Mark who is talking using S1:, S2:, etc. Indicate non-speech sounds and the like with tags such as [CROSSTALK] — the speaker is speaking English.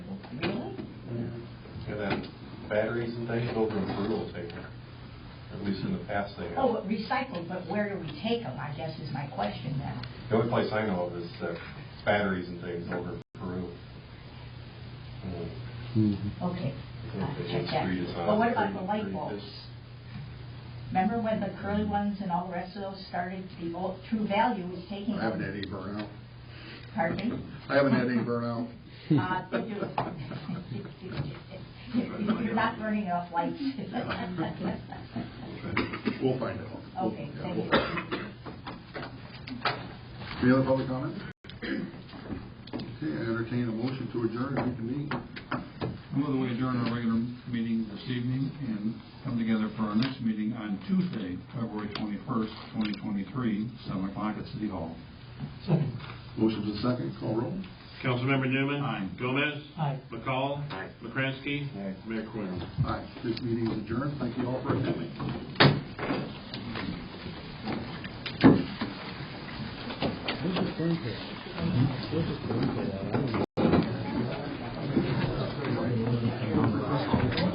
S1: batteries and things over in Peru will take them. At least in the past they have.
S2: Oh, but recycled, but where do we take them, I guess is my question then.
S1: The only place I know of is uh, batteries and things over in Peru. Mm.
S2: Okay. I'll
S1: Okay,
S2: check that.
S1: redesign,
S2: But what about the
S1: pretty-
S2: light
S1: pretty
S2: bulbs?
S1: good.
S2: Remember when the curly ones and all the rest of those started, the old True Value was taking
S3: I haven't had
S2: them?
S3: any burnout.
S2: Pardon me?
S3: I haven't had any burnout.
S2: Uh, they do. [LAUGHS] You're not burning enough lights. [LAUGHS]
S3: We'll find out.
S2: Okay,
S3: Yeah,
S2: thank
S3: we'll
S2: you.
S3: find out. Any other public comment? Okay, I entertain a motion to adjourn, and reconvene.
S4: Move that we adjourn our regular meeting this evening and come together for our next meeting on Tuesday, February 21st, 2023, 7 o'clock at City Hall.
S3: Motion to second, call roll.
S5: Councilmember Newman.
S4: Aye.
S5: Gomez.
S6: Aye.
S5: McCall. McCrankey. Mayor Quinn.
S3: Aye, this meeting is adjourned. Thank you all for attending.
S7: Where's your phone call? Where's your phone call?